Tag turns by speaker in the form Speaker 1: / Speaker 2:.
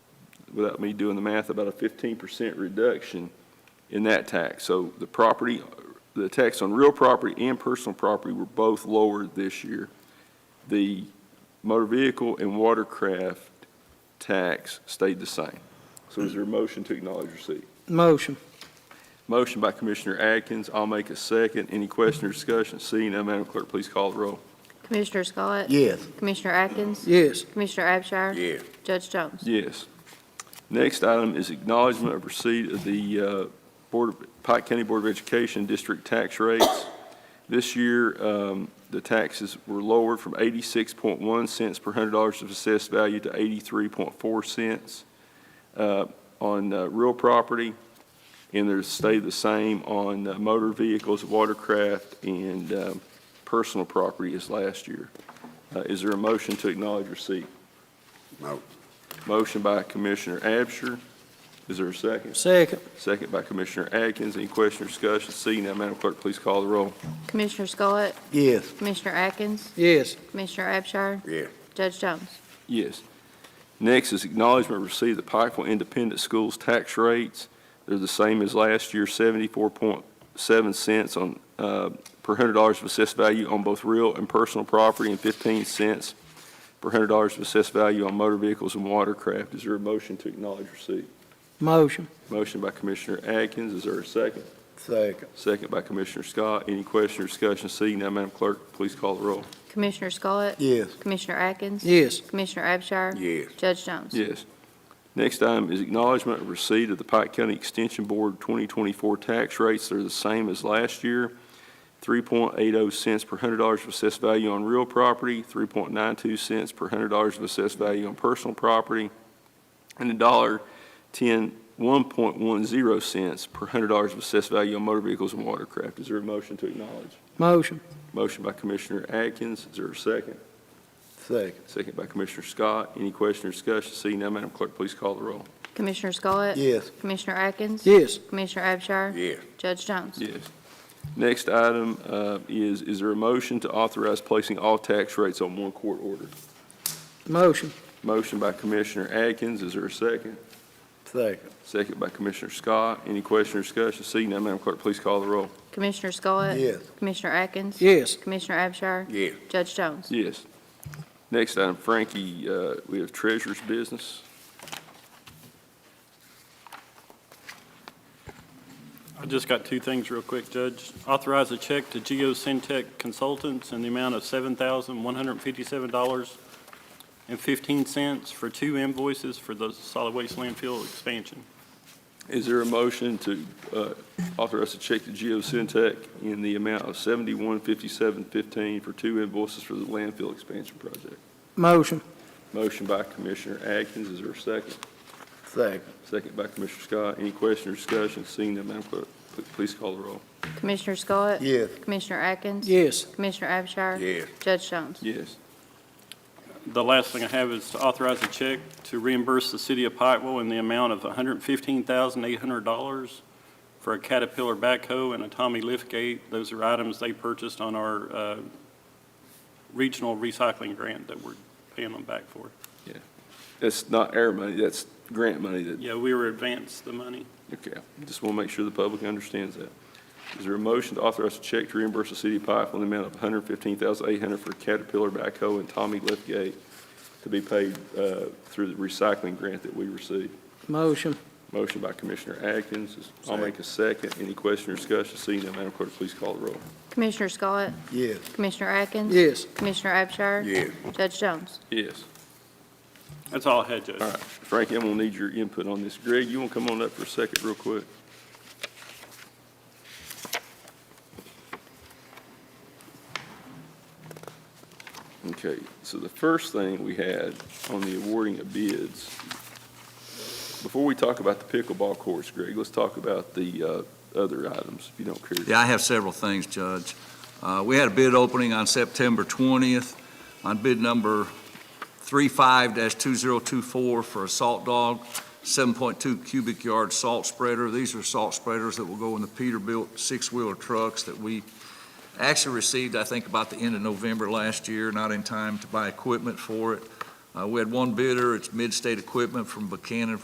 Speaker 1: without me doing the math, about a fifteen percent reduction in that tax. So the property, the tax on real property and personal property were both lowered this year. The motor vehicle and watercraft tax stayed the same. So is there a motion to acknowledge receipt?
Speaker 2: Motion.
Speaker 1: Motion by Commissioner Atkins, I'll make a second. Any question or discussion? Seeing none, Madam Clerk, please call the roll.
Speaker 3: Commissioner Scott?
Speaker 4: Yes.
Speaker 3: Commissioner Atkins?
Speaker 2: Yes.
Speaker 3: Commissioner Abshire?
Speaker 4: Yes.
Speaker 3: Judge Jones?
Speaker 1: Yes. Next item is acknowledgment of receipt of the uh, Board of, Pike County Board of Education district tax rates. This year, um, the taxes were lowered from 86.1 cents per hundred dollars of assessed value to 83.4 cents uh, on uh, real property, and they're stayed the same on uh, motor vehicles, watercraft, and um, personal property as last year. Uh, Is there a motion to acknowledge receipt?
Speaker 4: No.
Speaker 1: Motion by Commissioner Abshur. Is there a second?
Speaker 2: Second.
Speaker 1: Second by Commissioner Atkins. Any question or discussion? Seeing none, Madam Clerk, please call the roll.
Speaker 3: Commissioner Scott?
Speaker 4: Yes.
Speaker 3: Commissioner Atkins?
Speaker 2: Yes.
Speaker 3: Commissioner Abshire?
Speaker 4: Yeah.
Speaker 3: Judge Jones?
Speaker 1: Yes. Next is acknowledgment received the Pikeville Independent Schools tax rates. They're the same as last year, 74.7 cents on, uh, per hundred dollars of assessed value on both real and personal property, and 15 cents per hundred dollars of assessed value on motor vehicles and watercraft. Is there a motion to acknowledge receipt?
Speaker 2: Motion.
Speaker 1: Motion by Commissioner Atkins. Is there a second?
Speaker 4: Second.
Speaker 1: Second by Commissioner Scott. Any question or discussion? Seeing none, Madam Clerk, please call the roll.
Speaker 3: Commissioner Scott?
Speaker 4: Yes.
Speaker 3: Commissioner Atkins?
Speaker 2: Yes.
Speaker 3: Commissioner Abshire?
Speaker 4: Yes.
Speaker 3: Judge Jones?
Speaker 1: Yes. Next item is acknowledgment of receipt of the Pike County Extension Board 2024 tax rates. They're the same as last year, 3.80 cents per hundred dollars of assessed value on real property, 3.92 cents per hundred dollars of assessed value on personal property, and a dollar 10, 1.10 cents per hundred dollars of assessed value on motor vehicles and watercraft. Is there a motion to acknowledge?
Speaker 2: Motion.
Speaker 1: Motion by Commissioner Atkins. Is there a second?
Speaker 4: Second.
Speaker 1: Second by Commissioner Scott. Any question or discussion? Seeing none, Madam Clerk, please call the roll.
Speaker 3: Commissioner Scott?
Speaker 4: Yes.
Speaker 3: Commissioner Atkins?
Speaker 2: Yes.
Speaker 3: Commissioner Abshire?
Speaker 4: Yeah.
Speaker 3: Judge Jones?
Speaker 1: Yes. Next item uh, is, is there a motion to authorize placing all tax rates on one court order?
Speaker 2: Motion.
Speaker 1: Motion by Commissioner Atkins. Is there a second?
Speaker 4: Second.
Speaker 1: Second by Commissioner Scott. Any question or discussion? Seeing none, Madam Clerk, please call the roll.
Speaker 3: Commissioner Scott?
Speaker 4: Yes.
Speaker 3: Commissioner Atkins?
Speaker 2: Yes.
Speaker 3: Commissioner Abshire?
Speaker 4: Yeah.
Speaker 3: Judge Jones?
Speaker 1: Yes. Next item, Frankie, uh, we have treasurer's business.
Speaker 5: I just got two things real quick, Judge. Authorize a check to Geo Syntech Consultants in the amount of seven thousand one hundred and fifty-seven dollars and fifteen cents for two invoices for the solid waste landfill expansion.
Speaker 1: Is there a motion to uh, authorize a check to Geo Syntech in the amount of seventy-one fifty-seven fifteen for two invoices for the landfill expansion project?
Speaker 2: Motion.
Speaker 1: Motion by Commissioner Atkins, is there a second?
Speaker 4: Second.
Speaker 1: Second by Commissioner Scott. Any question or discussion? Seeing none, Madam Clerk, pl- please call the roll.
Speaker 3: Commissioner Scott?
Speaker 4: Yes.
Speaker 3: Commissioner Atkins?
Speaker 2: Yes.
Speaker 3: Commissioner Abshire?
Speaker 4: Yeah.
Speaker 3: Judge Jones?
Speaker 1: Yes.
Speaker 5: The last thing I have is to authorize a check to reimburse the city of Pikeville in the amount of hundred and fifteen thousand eight hundred dollars for a Caterpillar backhoe and a Tommy liftgate. Those are items they purchased on our, uh, regional recycling grant that we're paying them back for.
Speaker 1: That's not air money, that's grant money that,
Speaker 5: Yeah, we were advanced the money.
Speaker 1: okay. Just want to make sure the public understands that. Is there a motion to authorize a check to reimburse the city of Pikeville in the amount of $115,800 for Caterpillar backhoe and Tommy liftgate to be paid uh, through the recycling grant that we received?
Speaker 2: Motion.
Speaker 1: Motion by Commissioner Atkins. I'll make a second. Any question or discussion? Seeing none, Madam Clerk, please call the roll.
Speaker 3: Commissioner Scott?
Speaker 4: Yes.
Speaker 3: Commissioner Atkins?
Speaker 2: Yes.
Speaker 3: Commissioner Abshire?
Speaker 4: Yeah.
Speaker 3: Judge Jones?
Speaker 1: Yes.
Speaker 5: That's all I had, Judge.
Speaker 1: All right, Frankie, I'm gonna need your input on this. Greg, you wanna come on up for a second real quick? Okay, so the first thing we had on the awarding of bids, before we talk about the pickleball courts, Greg, let's talk about the, uh, other items, if you don't care.
Speaker 6: Yeah, I have several things, Judge. Uh, We had a bid opening on September 20th on bid number 35-2024 for a salt dog, 7.2 cubic yard salt spreader. These are salt spreaders that will go in the Peterbilt six-wheeler trucks that we actually received, I think, about the end of November last year, not in time to buy equipment for it. Uh, We had one bidder, it's Midstate Equipment from Buchanan